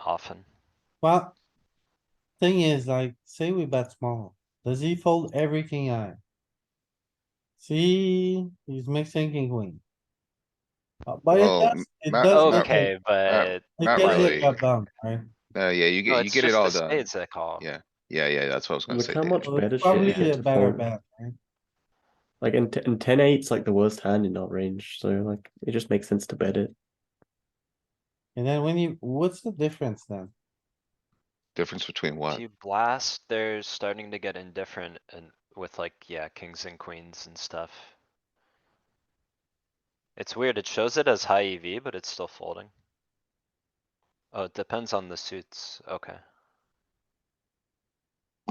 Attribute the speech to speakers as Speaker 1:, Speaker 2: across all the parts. Speaker 1: often.
Speaker 2: Well, thing is, like, say we bet small, does he fold every king eye? See, he's mixing king queen. Uh, But it
Speaker 3: Well,
Speaker 2: does, it
Speaker 3: ma-
Speaker 2: does. look like
Speaker 1: Okay, but
Speaker 2: it
Speaker 3: not
Speaker 2: can get
Speaker 3: really.
Speaker 2: cut down, right?
Speaker 3: No, Uh, yeah, you
Speaker 1: no,
Speaker 3: get, you
Speaker 1: it's
Speaker 3: get it
Speaker 1: just
Speaker 3: all
Speaker 1: the
Speaker 3: done.
Speaker 1: spades that call.
Speaker 3: Yeah. Yeah, yeah, that's what I was gonna
Speaker 4: Look
Speaker 3: say.
Speaker 4: how
Speaker 3: David.
Speaker 4: much-
Speaker 2: So
Speaker 4: better
Speaker 2: it's
Speaker 4: shit
Speaker 2: Probably
Speaker 4: if it's
Speaker 2: a better
Speaker 4: fold.
Speaker 2: bet, right?
Speaker 4: Like in t- in ten eight's like the worst hand in our range, so like it just makes sense to bet it.
Speaker 2: And then when you, what's the difference then?
Speaker 3: Difference between
Speaker 1: If
Speaker 3: what?
Speaker 1: you blast, they're starting to get indifferent and with like, yeah, kings and queens and stuff. It's weird, it shows it as high EV, but it's still folding. Oh, it depends on the suits, okay.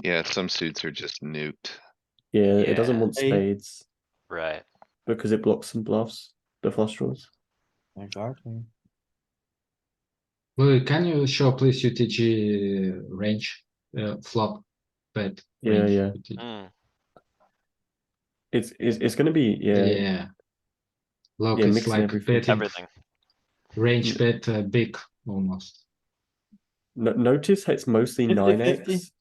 Speaker 3: Yeah, some suits are just nuked.
Speaker 4: Yeah, it doesn't
Speaker 1: Yeah.
Speaker 4: want
Speaker 2: Hey.
Speaker 4: spades
Speaker 1: Right,
Speaker 4: because it blocks some bluffs, the flush draws.
Speaker 2: Exactly.
Speaker 5: Louis, can you show please UTG range, uh, flop, bet?
Speaker 4: Yeah,
Speaker 5: range,
Speaker 4: yeah.
Speaker 5: UTG?
Speaker 1: Mm,
Speaker 4: It's it's, it's gonna be yeah, yeah.
Speaker 5: Yeah. Look,
Speaker 4: Yeah,
Speaker 5: it's
Speaker 4: mixing
Speaker 5: like
Speaker 4: everything. Mm.
Speaker 5: betting,
Speaker 1: everything,
Speaker 5: range bet, uh, big almost.
Speaker 4: No, notice it's mostly
Speaker 2: 50-50.
Speaker 4: nine x.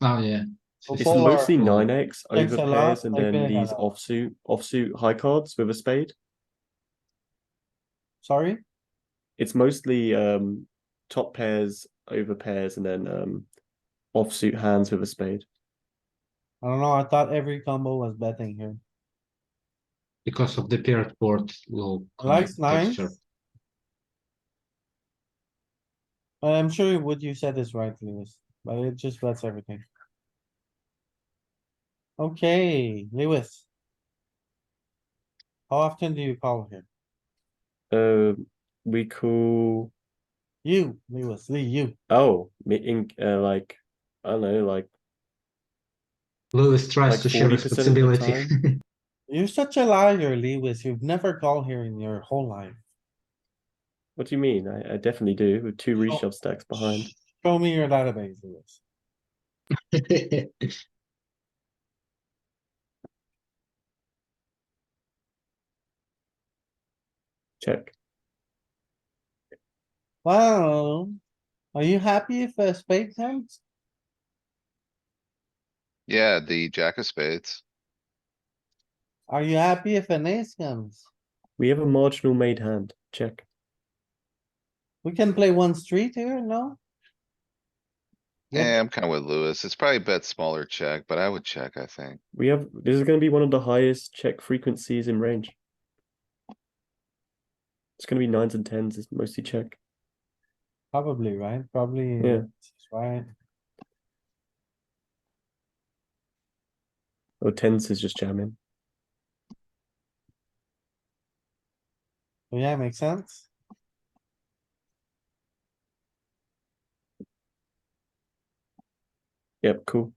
Speaker 5: Oh, yeah.
Speaker 2: Well,
Speaker 4: It's
Speaker 2: Full or-
Speaker 4: mostly nine x
Speaker 2: Thanks
Speaker 4: over
Speaker 2: a lot,
Speaker 4: pairs and
Speaker 2: like
Speaker 4: then
Speaker 2: big
Speaker 4: these
Speaker 2: hand.
Speaker 4: offsuit offsuit high cards with a spade.
Speaker 2: Sorry,
Speaker 4: It's mostly um top pairs over pairs and then um offsuit hands with a spade.
Speaker 2: I don't know. I thought every combo was betting here.
Speaker 5: Because of the paired board low.
Speaker 2: Likes
Speaker 5: connect
Speaker 2: nines.
Speaker 5: texture.
Speaker 2: I'm sure what you said is right, Lewis, but it just bets everything. Okay, Lewis. How often do you call here?
Speaker 4: Um we call
Speaker 2: You, Lewis, Lee, you.
Speaker 4: oh me in uh, like I don't know like
Speaker 5: Lewis
Speaker 4: Like
Speaker 5: tries to share
Speaker 4: 40% of the
Speaker 5: responsibility.
Speaker 2: You're such a liar, Lewis. You've never called here in your whole life.
Speaker 4: What do you mean? I, I definitely do with two
Speaker 2: Sure.
Speaker 4: reshove stacks behind.
Speaker 2: Show me your database, Lewis.
Speaker 4: Check.
Speaker 2: Wow. Are you happy if a spade comes?
Speaker 3: Yeah, the jack of spades.
Speaker 2: Are you happy if an ace comes?
Speaker 4: We have a marginal made hand. Check.
Speaker 2: We can play one street here, no? Yep.
Speaker 3: Yeah, Eh, I'm kinda with Lewis. It's probably bet smaller check, but I would check, I think.
Speaker 4: We have this is going to be one of the highest check frequencies in range. It's going to be nines and tens. It's mostly check.
Speaker 2: Probably, right? Probably,
Speaker 4: Yeah.
Speaker 2: right?
Speaker 4: Or tens is just jamming.
Speaker 2: Yeah, makes sense.
Speaker 4: Yep, cool.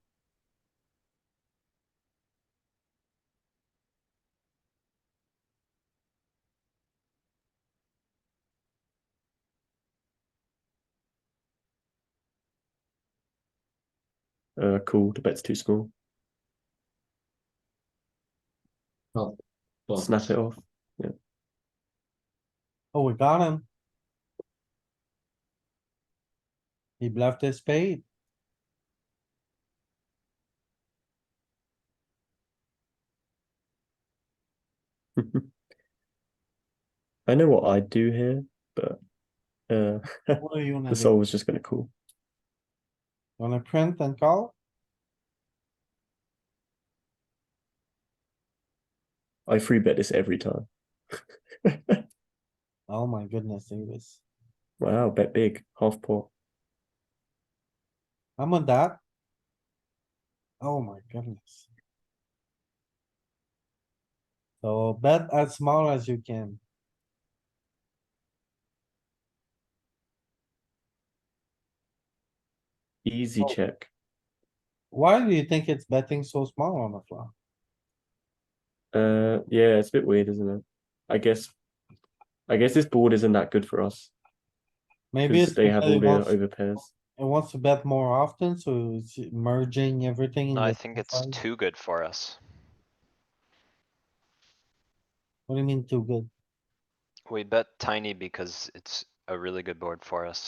Speaker 4: Uh, cool. The bet's too small.
Speaker 5: Oh, well,
Speaker 4: Snap it off.
Speaker 2: Oh, we got him. He bluffed his spade.
Speaker 4: I know what I'd do here, but uh,
Speaker 2: What do you wanna
Speaker 4: the
Speaker 2: do?
Speaker 4: soul was just gonna call.
Speaker 2: Wanna print and call?
Speaker 4: I free bet this every time.
Speaker 2: Oh my goodness, Davis.
Speaker 4: Wow, bet big, half pot.
Speaker 2: I'm on that. Oh my goodness. So bet as small as you can.
Speaker 4: Easy
Speaker 2: Oh.
Speaker 4: check.
Speaker 2: Why do you think it's betting so small on the flop?
Speaker 4: Uh, yeah, it's a bit weird, isn't it? I guess, I guess this board isn't that good for us
Speaker 2: Maybe it's
Speaker 4: because they have
Speaker 2: because
Speaker 4: all
Speaker 2: it
Speaker 4: the
Speaker 2: wants, it
Speaker 4: over pairs.
Speaker 2: wants to bet more often, so it's merging everything. in
Speaker 1: no, I
Speaker 2: the
Speaker 1: think
Speaker 2: same
Speaker 1: it's
Speaker 2: size.
Speaker 1: too good for us.
Speaker 2: What do you mean too good?
Speaker 1: We bet tiny because it's a really good board for us.